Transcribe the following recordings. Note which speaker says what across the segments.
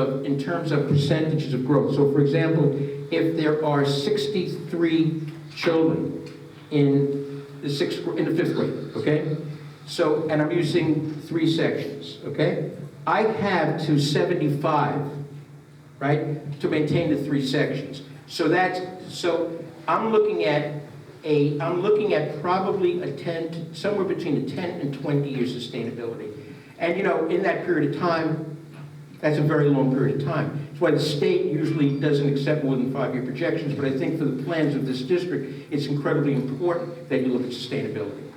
Speaker 1: of- in terms of percentages of growth. So for example, if there are 63 children in the sixth, in the fifth grade, okay? So, and I'm using three sections, okay? I have to 75, right, to maintain the three sections. So that's, so I'm looking at a, I'm looking at probably a 10, somewhere between a 10 and 20-year sustainability. And, you know, in that period of time, that's a very long period of time. That's why the state usually doesn't accept more than five-year projections, but I think for the plans of this district, it's incredibly important that you look at sustainability.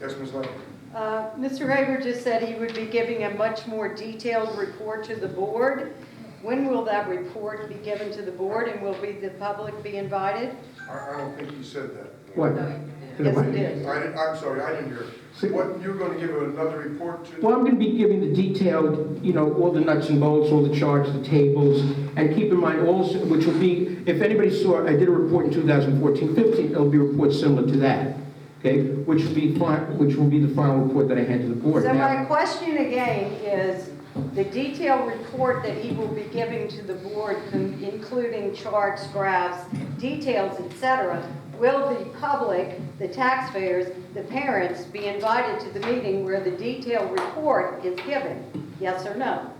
Speaker 2: Yes, Ms. Lang?
Speaker 3: Uh, Mr. Haber just said he would be giving a much more detailed report to the board. When will that report be given to the board, and will we, the public be invited?
Speaker 2: I, I don't think you said that.
Speaker 1: What?
Speaker 3: Yes, it is.
Speaker 2: I, didn't- I'm sorry, I didn't hear.
Speaker 1: See-
Speaker 2: What, you're going to give another report to?
Speaker 1: Well, I'm going to be giving the detailed, you know, all the nuts and bolts, all the charts, the tables, and keep in mind also, which will be, if anybody saw, I did a report in 2014-15, it'll be a report similar to that, okay? Which will be, fi- which will be the final report that I hand to the board.
Speaker 3: So
Speaker 1: Now-
Speaker 3: my question again is, the detailed report that he will be giving to the board, con- including charts, graphs, details, et cetera, will the public, the taxpayers, the parents be invited to the meeting where the detailed report is given? Yes or no?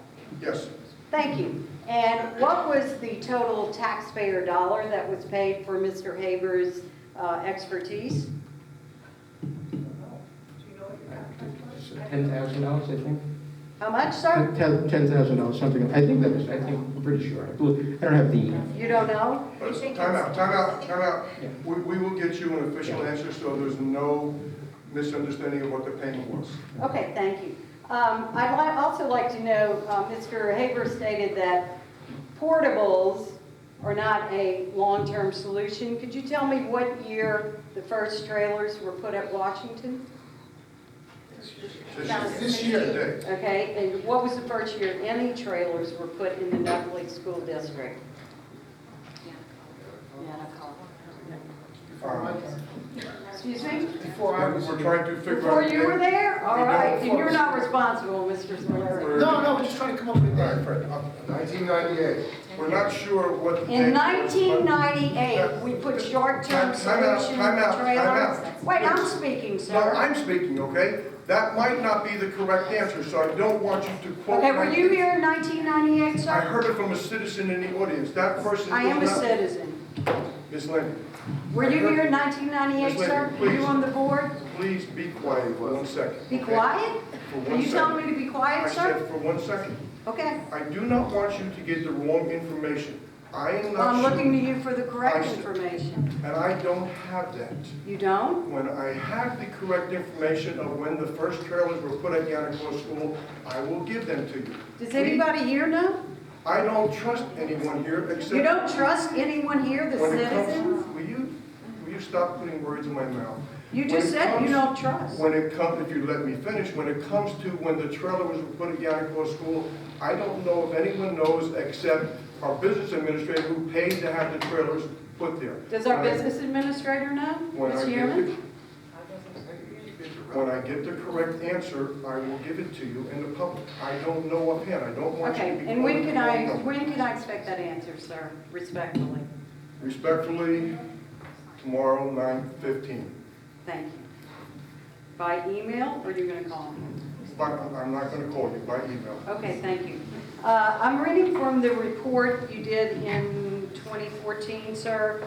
Speaker 2: Yes,
Speaker 3: Thank you. And what was the total taxpayer dollar that was paid for Mr. Haber's uh, expertise?
Speaker 1: $10,000, I think.
Speaker 3: How much, sir?
Speaker 1: Ten ten thousand dollars, something, I think that is, I think, I'm pretty sure, I believe- I don't have the,
Speaker 3: You don't know?
Speaker 2: But it's- time out, time out, time out.
Speaker 1: Yeah.
Speaker 2: We, we will get you an official
Speaker 1: Yeah.
Speaker 2: answer, so there's no misunderstanding of what the payment was.
Speaker 3: Okay, thank you. Um, I'd li- also like to know, uh, Mr. Haber stated that portables are not a long-term solution. Could you tell me what year the first trailers were put at Washington?
Speaker 2: This year- This year, today.
Speaker 3: Okay, and what was the first year any trailers were put in the Nutley School District?
Speaker 2: Um,
Speaker 3: Excuse me?
Speaker 4: Before I
Speaker 2: We're
Speaker 4: was.
Speaker 2: we're trying to figure
Speaker 3: Before
Speaker 2: out.
Speaker 3: you were there? All
Speaker 2: We don't
Speaker 3: right, and you're
Speaker 2: force-
Speaker 3: not responsible, Mr. Swanson.
Speaker 4: No, no, we're just trying to come up with a
Speaker 2: All right,
Speaker 4: date.
Speaker 2: Fred, nineteen ninety-eight. We're not sure what the. date
Speaker 3: In
Speaker 2: was, but-
Speaker 3: 1998, we put short-term
Speaker 2: Time- time out,
Speaker 3: solution
Speaker 2: time out, time
Speaker 3: trailers.
Speaker 2: out.
Speaker 3: Wait, I'm speaking, sir.
Speaker 2: No, I'm speaking, okay? That might not be the correct answer, so I don't want you to quote.
Speaker 3: Okay, were you
Speaker 2: 1998.
Speaker 3: here in 1998,
Speaker 2: I
Speaker 3: sir?
Speaker 2: heard it from a citizen in the audience. That person is
Speaker 3: I am a
Speaker 2: not-
Speaker 3: citizen.
Speaker 2: Ms. Lane,
Speaker 3: Were you here in 1998,
Speaker 2: Ms.
Speaker 3: sir?
Speaker 2: Lane,
Speaker 3: Were you
Speaker 2: please.
Speaker 3: on the board?
Speaker 2: please be quiet for one second.
Speaker 3: Be
Speaker 2: okay?
Speaker 3: quiet?
Speaker 2: For
Speaker 3: Are
Speaker 2: one
Speaker 3: you telling
Speaker 2: second.
Speaker 3: me to be
Speaker 2: I
Speaker 3: quiet,
Speaker 2: said
Speaker 3: sir?
Speaker 2: for one second.
Speaker 3: Okay,
Speaker 2: I do not want you to get the wrong information. I am
Speaker 3: well, I'm
Speaker 2: not
Speaker 3: looking
Speaker 2: sure,
Speaker 3: to you for the correct
Speaker 2: I said-
Speaker 3: information.
Speaker 2: and I don't have that.
Speaker 3: You don't?
Speaker 2: When I have the correct information of when the first trailers were put at Yanacor School, I will give them to you.
Speaker 3: Does
Speaker 2: We-
Speaker 3: anybody here know?
Speaker 2: I don't trust anyone here except.
Speaker 3: You don't trust anyone here, the
Speaker 2: When it comes,
Speaker 3: citizens?
Speaker 2: will you, will you stop putting words in my mouth?
Speaker 3: You
Speaker 2: When it
Speaker 3: just said you
Speaker 2: comes-
Speaker 3: don't trust.
Speaker 2: When it comes, if you let me finish, when it comes to when the trailer was put at Yanacor School, I don't know if anyone knows except our business administrator who paid to have the trailers put there.
Speaker 3: Does our
Speaker 2: When I-
Speaker 3: business administrator know,
Speaker 2: when I
Speaker 3: Ms.
Speaker 2: get
Speaker 3: Human?
Speaker 2: the- When I get the correct answer, I will give it to you in the public. I don't know offhand, I don't want you
Speaker 3: Okay,
Speaker 2: to be.
Speaker 3: and when
Speaker 2: quoted
Speaker 3: can
Speaker 2: the wrong
Speaker 3: I,
Speaker 2: number.
Speaker 3: when can I expect that answer, sir, respectfully?
Speaker 2: Respectfully, tomorrow, nine fifteen.
Speaker 3: Thank you. By email, or you're gonna call me?
Speaker 2: But I'm not gonna call you by email.
Speaker 3: Okay, thank you. Uh, I'm reading from the report you did in 2014, sir,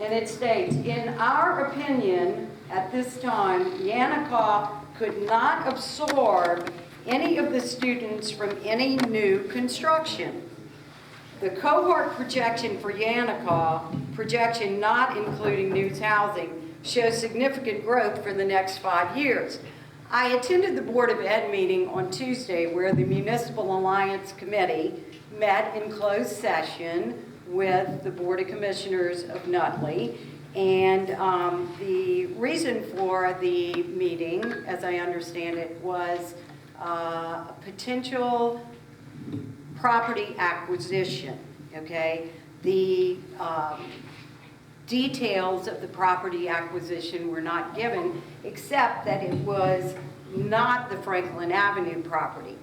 Speaker 3: and it states, "In our opinion, at this time, Yanakaw could not absorb any of the students from any new construction. The cohort projection for Yanakaw, projection not including new housing, shows significant growth for the next five years. I attended the Board of Ed meeting on Tuesday where the Municipal Alliance Committee met in closed session with the Board of Commissioners of Nutley. And um, the reason for the meeting, as I understand it, was uh, potential property acquisition, okay? The um, details of the property acquisition were not given, except that it was not the Franklin Avenue property.